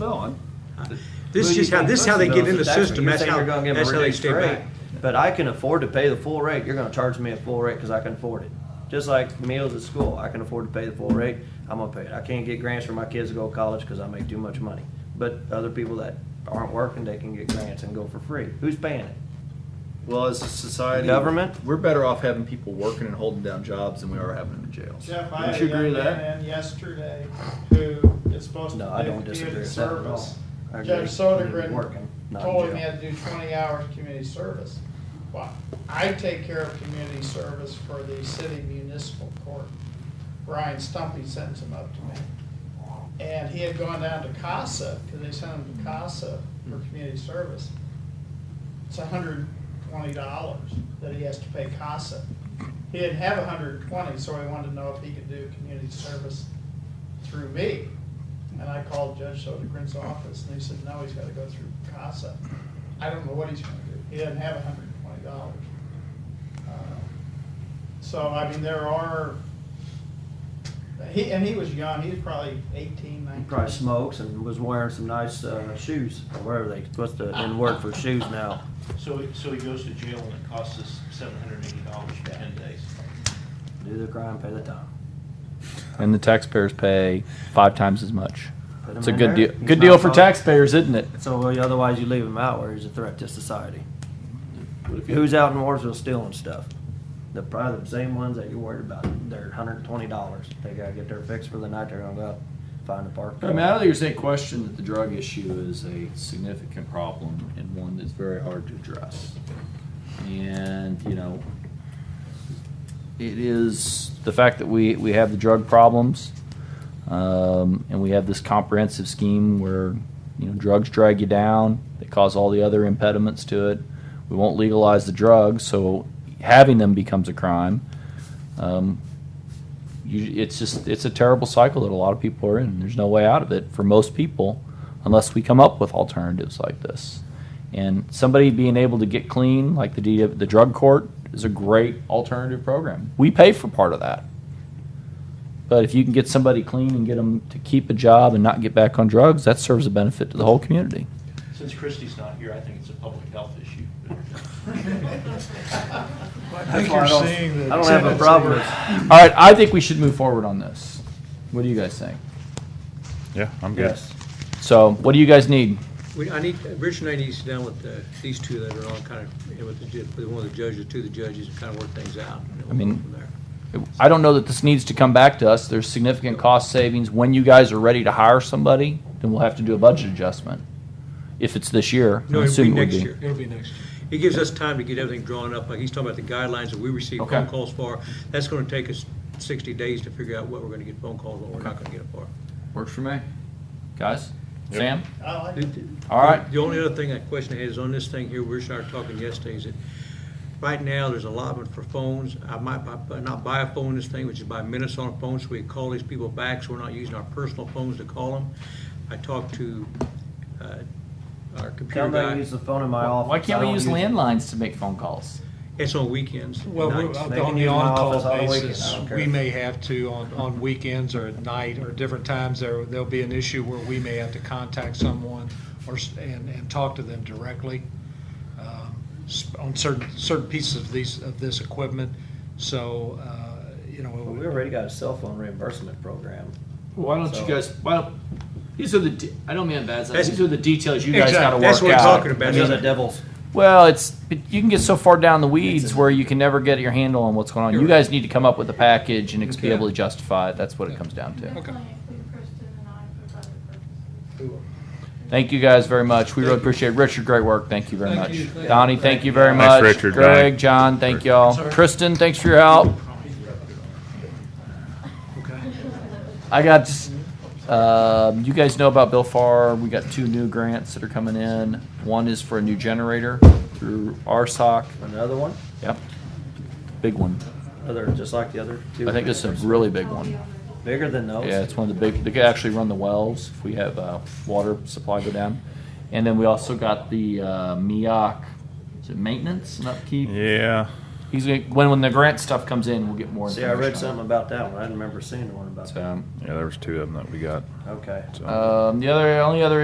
billing. This Who is do you just how, think this is how puts they the get bills? in the That's what system, You're that's saying how, you're gonna give them a that's how they stay ridiculous back. rate, But I can afford to pay the full rate, you're gonna charge me a full rate, cause I can afford it. Just like meals at school, I can afford to pay the full rate, I'm gonna pay it. I can't get grants for my kids to go to college, cause I make too much money. But other people that aren't working, they can get grants and go for free. Who's paying it? Well, as a society, Government? we're better off having people working and holding down jobs than we are having them in jails. Jeff, I Don't had you a agree young with that? man in yesterday who is supposed No, I to don't do disagree community with that at all. service. I agree. Judge You need to be Sodergren working, not in told him he jail. had to do twenty hours of community service. Well, I take care of community service for the city municipal court. Brian Stumpy sends him up to me. And he had gone down to CASA, because they sent him to CASA for Hmm. community service. It's hundred twenty dollars that he has to pay CASA. He didn't have $120, so he wanted to know if he could do community service through me. And I called Judge Sodegren's office, and he said, no, he's gotta go through CASA. I don't know what he's gonna do, he doesn't have hundred and twenty dollars. Uh, So, I mean, there are, he, and he was young, he was probably eighteen, He nineteen. probably smokes and was wearing some nice, uh, shoes, or whatever they, what's the, in word for shoes now? So, he- so he goes to jail and it costs us seven hundred and eighty dollars for ten days. Do the crime, pay the time. and the taxpayers pay five times as much. Put It's a him in good there. deal. He's Good not deal for wrong. taxpayers, isn't it? So well, otherwise you leave him out where he's a threat to society. What if you- Who's out in Warsville stealing stuff? The probably the same ones that you're worried about. They're hundred and twenty dollars. They gotta get their fix for the night. They're gonna go out find a park. I mean, I don't think there's any question that the drug issue is a significant problem and one that's very hard to address. And, you know, it is The fact that we we have the drug problems, um, and we have this comprehensive scheme where you know drugs drag you down. They cause all the other impediments to it. We won't legalize the drugs, so having them becomes a crime. Um, you, it's just it's a terrible cycle that a lot of people are in. There's no way out of it for most people, unless we come up with alternatives like this. And somebody being able to get clean, like the D- the drug court, is a great alternative program. We pay for part of that, but if you can get somebody clean and get them to keep a job and not get back on drugs, that serves a benefit to the whole community. Since Christie's not here, I think it's a public health issue. I That's think why I you're don't- seeing the I don't have a tendency. problem with All right, I think we should move forward on this. What do you guys think? Yeah, I'm good. So, what do you guys need? We, I need, Rich and I need to sit down with uh, these two that are on kind of, you know, with the, ju- with one of the judges, two of the judges, and kind of work things out. and then we'll I mean- go from there. I don't know that this needs to come back to us. There's significant cost savings. When you guys are ready to hire somebody, then we'll have to do a budget adjustment. If it's this year, No, I'm it'll be assuming it would next be. year, it'll be next year. It gives us time to get everything drawn up, like he's talking about the guidelines that we receive Okay. phone calls for. That's gonna take us sixty days to figure out what we're gonna get phone calls, what we're not gonna get for. works for me. Guys, Yep. Sam, I like it. all right. The only other thing, that question I had is on this thing here, we were started talking yesterday, is that right now, there's allotment for phones. I might bu- not buy a phone, this thing, which is buy minutes on a phone, so we call these people back, so we're not using our personal phones to call them. I talked to uh, our computer Tell me I guy. use the phone in my office. Why can't I we don't use landlines to make phone calls? It's on weekends. Well, nights. we're- They can on the use my on-call office all weekend, I basis, don't care. we may have to, on, on weekends or at night or different times, there, there'll be an issue where we may have to contact someone or, s- and, and talk to them directly um, s- on certain, certain pieces of these, of this equipment, so, uh, you know. it Well, would- We already got a cell phone reimbursement program. Why don't So- you guys, why don't, these are the, de- I don't mean it bad, That's- these are the details you guys Exactly. gotta work out. That's what we're talking about. Those are the devils. Well, it's but you can get so far down the weeds where you can never get your handle on what's going on. You guys need to come up with a package and ex- be able to justify it. That's what it comes down to. Okay. Thank you guys very much. We really appreciate it. Richard, great work. Thank you very Thank much. you. Thank Donnie, you. thank you very Thanks, much. Richard, Greg, Donnie. John, thank y'all. Kristen, thanks for your help. I got, just- um, you guys know about Bill Farr. We got two new grants that are coming in. One is for a new generator through RSOC. Another one, Yep. Big one. other, just like the other two. I think this is a really big one. Bigger than those. Yeah, it's one of the big, they could actually run the wells if we have uh, water supply go down. And then we also got the uh, MEAC, is it maintenance and upkeep? Yeah. He's gonna, when, when the grant stuff comes in, we'll get more See, I read something information. about that one. I didn't remember seeing one about that. on it. Yeah, there was two of them that we got. Okay. so. So, Um, the other, only other